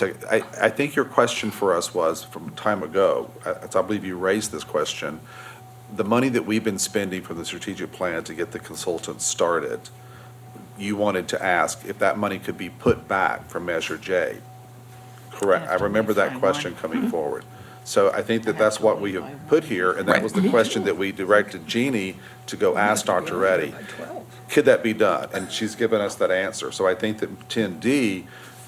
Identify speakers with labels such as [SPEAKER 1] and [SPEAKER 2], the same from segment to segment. [SPEAKER 1] So I, I think your question for us was, from time ago, I I believe you raised this question, the money that we've been spending from the strategic plan to get the consultants started, you wanted to ask if that money could be put back for Measure J. Correct, I
[SPEAKER 2] After we
[SPEAKER 1] remember that
[SPEAKER 2] find
[SPEAKER 1] question coming forward. So I think that that's what we have put here, and that was the question that we directed Jeannie to go ask Dr. Reddy could that be done? And she's given us that answer. So I think that ten D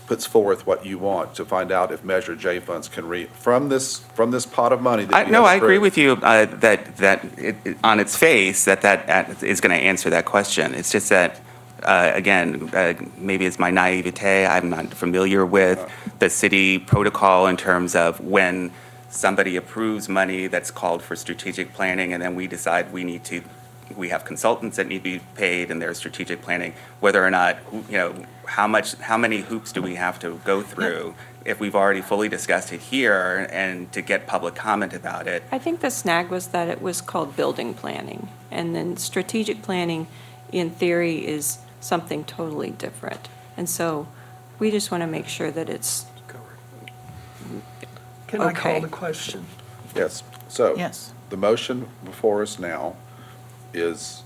[SPEAKER 1] puts forth what you want to find out if Measure J funds can re, from this, from this pot of money that
[SPEAKER 3] I,
[SPEAKER 1] you
[SPEAKER 3] no, I
[SPEAKER 1] have
[SPEAKER 3] agree
[SPEAKER 1] approved.
[SPEAKER 3] with you uh, that that it, it- on its face that that at- is going to answer that question. It's just that uh, again, uh, maybe it's my naivete. I'm not familiar with the city protocol in terms of when somebody approves money that's called for strategic planning, and then we decide we need to. We have consultants that need to be paid, and their strategic planning. Whether or not, you know, how much, how many hoops do we have to go through? if we've already fully discussed it here and to get public comment about it.
[SPEAKER 4] I think the snag was that it was called building planning, and then strategic planning, in theory, is something totally different. And so we just want to make sure that it's,
[SPEAKER 5] Can I
[SPEAKER 4] Okay.
[SPEAKER 5] call the question?
[SPEAKER 1] Yes, so.
[SPEAKER 2] Yes.
[SPEAKER 1] The motion before us now is,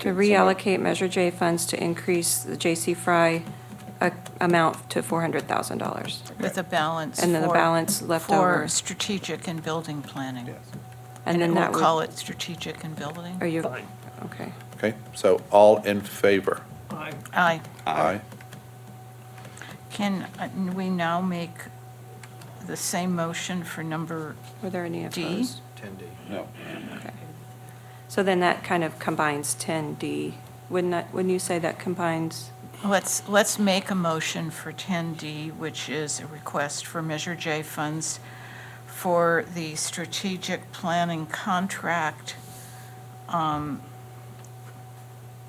[SPEAKER 4] to
[SPEAKER 1] Did someone-
[SPEAKER 4] reallocate Measure J funds to increase the J.C. Fry a- amount to $400,000.
[SPEAKER 2] With a balance.
[SPEAKER 4] And then the
[SPEAKER 2] for-
[SPEAKER 4] balance left over.
[SPEAKER 2] For strategic and building planning.
[SPEAKER 4] And then
[SPEAKER 2] it
[SPEAKER 4] that
[SPEAKER 2] will call
[SPEAKER 4] would,
[SPEAKER 2] it strategic and building.
[SPEAKER 4] are you,
[SPEAKER 5] Fine.
[SPEAKER 4] okay.
[SPEAKER 1] okay, so all in favor?
[SPEAKER 5] I
[SPEAKER 2] Aye.
[SPEAKER 1] Aye.
[SPEAKER 2] Can uh, we now make the same motion for number,
[SPEAKER 4] Were there any
[SPEAKER 2] D?
[SPEAKER 4] opposed?
[SPEAKER 1] No.
[SPEAKER 4] Okay. So then that kind of combines 10D. Wouldn't that, wouldn't you say that combines?
[SPEAKER 2] let's, let's make a motion for 10D, which is a request for Measure J funds for the strategic planning contract um,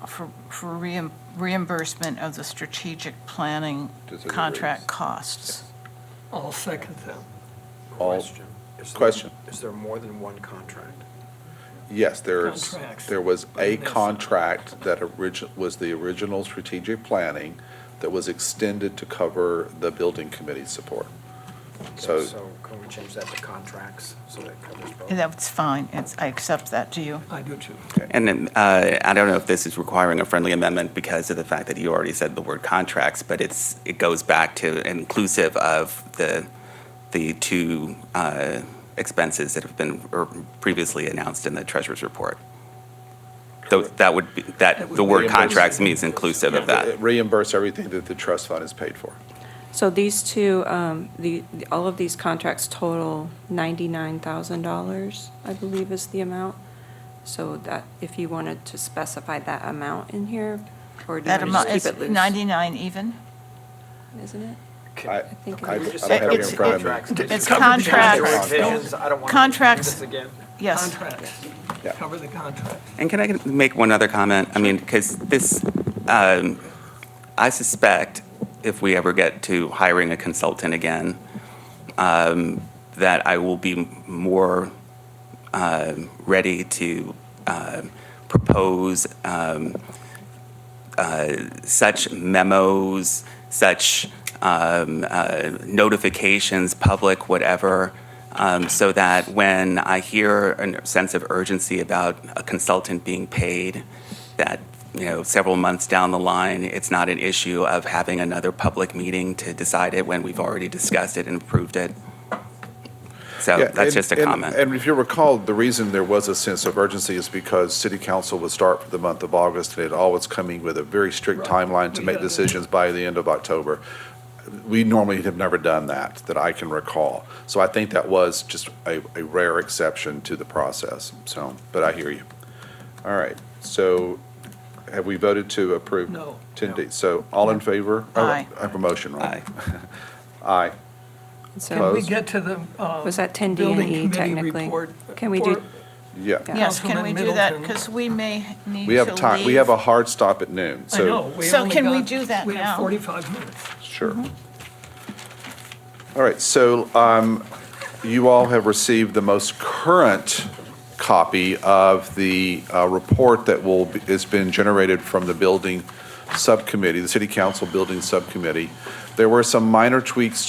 [SPEAKER 2] for for reim- reimbursement of the strategic planning
[SPEAKER 1] Deliveries.
[SPEAKER 2] contract costs.
[SPEAKER 5] I'll second that.
[SPEAKER 1] All-
[SPEAKER 6] Question. Is there-
[SPEAKER 1] Question.
[SPEAKER 6] Is there more than one contract?
[SPEAKER 1] Yes, there's,
[SPEAKER 5] Contracts.
[SPEAKER 1] there was a
[SPEAKER 5] Yes.
[SPEAKER 1] contract that origin, was the original strategic planning that was extended to cover the building committee support. So-
[SPEAKER 6] So can we change that to contracts so that covers both?
[SPEAKER 2] That's fine, It's- I accept that, do you?
[SPEAKER 5] I do too.
[SPEAKER 3] And then, uh, I don't know if this is requiring a friendly amendment because of the fact that you already said the word contracts, but it's, it goes back to inclusive of the, the two uh, expenses that have been er, previously announced in the treasurer's report. Tho- That would be, that, the word contracts means inclusive of that.
[SPEAKER 1] Reimburse everything that the trust fund has paid for.
[SPEAKER 4] So these two, um, the, all of these contracts total $99,000, I believe is the amount. So that, if you wanted to specify that amount in here, or do you
[SPEAKER 2] That
[SPEAKER 4] want
[SPEAKER 2] amount
[SPEAKER 4] to just
[SPEAKER 2] is
[SPEAKER 4] keep it loose?
[SPEAKER 2] 99 even?
[SPEAKER 4] Isn't it?
[SPEAKER 6] Can-
[SPEAKER 1] I, I
[SPEAKER 4] think
[SPEAKER 1] I
[SPEAKER 4] it's-
[SPEAKER 1] don't have it in
[SPEAKER 2] It's-
[SPEAKER 1] front of me.
[SPEAKER 6] Contracts.
[SPEAKER 2] It's
[SPEAKER 5] covered in the
[SPEAKER 2] contracts.
[SPEAKER 6] Visions, I don't want to do
[SPEAKER 2] Contracts.
[SPEAKER 6] this again.
[SPEAKER 2] Yes.
[SPEAKER 5] Contracts.
[SPEAKER 1] Yeah.
[SPEAKER 5] Cover the contract.
[SPEAKER 3] And can I make one other comment? I mean, because this, um, I suspect if we ever get to hiring a consultant again, um, that I will be more um, ready to um, propose um, uh, such memos, such um, uh, notifications, public, whatever, um, so that when I hear a sense of urgency about a consultant being paid, that you know, several months down the line, it's not an issue of having another public meeting to decide it when we've already discussed it and approved it. So
[SPEAKER 1] Yeah,
[SPEAKER 3] Oh, that's
[SPEAKER 1] and-
[SPEAKER 3] just a
[SPEAKER 1] and-
[SPEAKER 3] comment.
[SPEAKER 1] And if you recall, the reason there was a sense of urgency is because city council would start for the month of August, and it always coming with a very strict timeline to
[SPEAKER 5] We
[SPEAKER 1] make
[SPEAKER 5] had that.
[SPEAKER 1] decisions by the end of October. We normally have never done that, that I can recall. So I think that was just a, a rare exception to the process, so, but I hear you. All right, so have we voted to approve?
[SPEAKER 5] No.
[SPEAKER 1] 10D, so all in favor? Oh,
[SPEAKER 2] Aye.
[SPEAKER 1] I have a motion, right?
[SPEAKER 3] Aye.
[SPEAKER 1] Aye.
[SPEAKER 5] Can we
[SPEAKER 4] So
[SPEAKER 1] Opposed?
[SPEAKER 5] get to the, uh,
[SPEAKER 4] was that 10D
[SPEAKER 5] building
[SPEAKER 4] and E
[SPEAKER 5] committee
[SPEAKER 4] technically?
[SPEAKER 5] report?
[SPEAKER 4] Can we do-
[SPEAKER 5] for-
[SPEAKER 1] yeah.
[SPEAKER 4] Yeah.
[SPEAKER 2] Yes, can we
[SPEAKER 5] Councilman
[SPEAKER 2] do that?
[SPEAKER 5] Middleton.
[SPEAKER 2] Because we may need to leave.
[SPEAKER 1] We have time, we have a hard stop at noon,
[SPEAKER 5] I
[SPEAKER 1] so.
[SPEAKER 5] know. we
[SPEAKER 2] So
[SPEAKER 5] only
[SPEAKER 2] can we
[SPEAKER 5] got-
[SPEAKER 2] do that
[SPEAKER 5] We have
[SPEAKER 2] now?
[SPEAKER 5] 45 minutes.
[SPEAKER 1] Sure.
[SPEAKER 5] Mm-hmm.
[SPEAKER 1] All right, so um, you all have received the most current copy of the uh, report that will, has been generated from the building subcommittee, the city council building subcommittee. There were some minor tweaks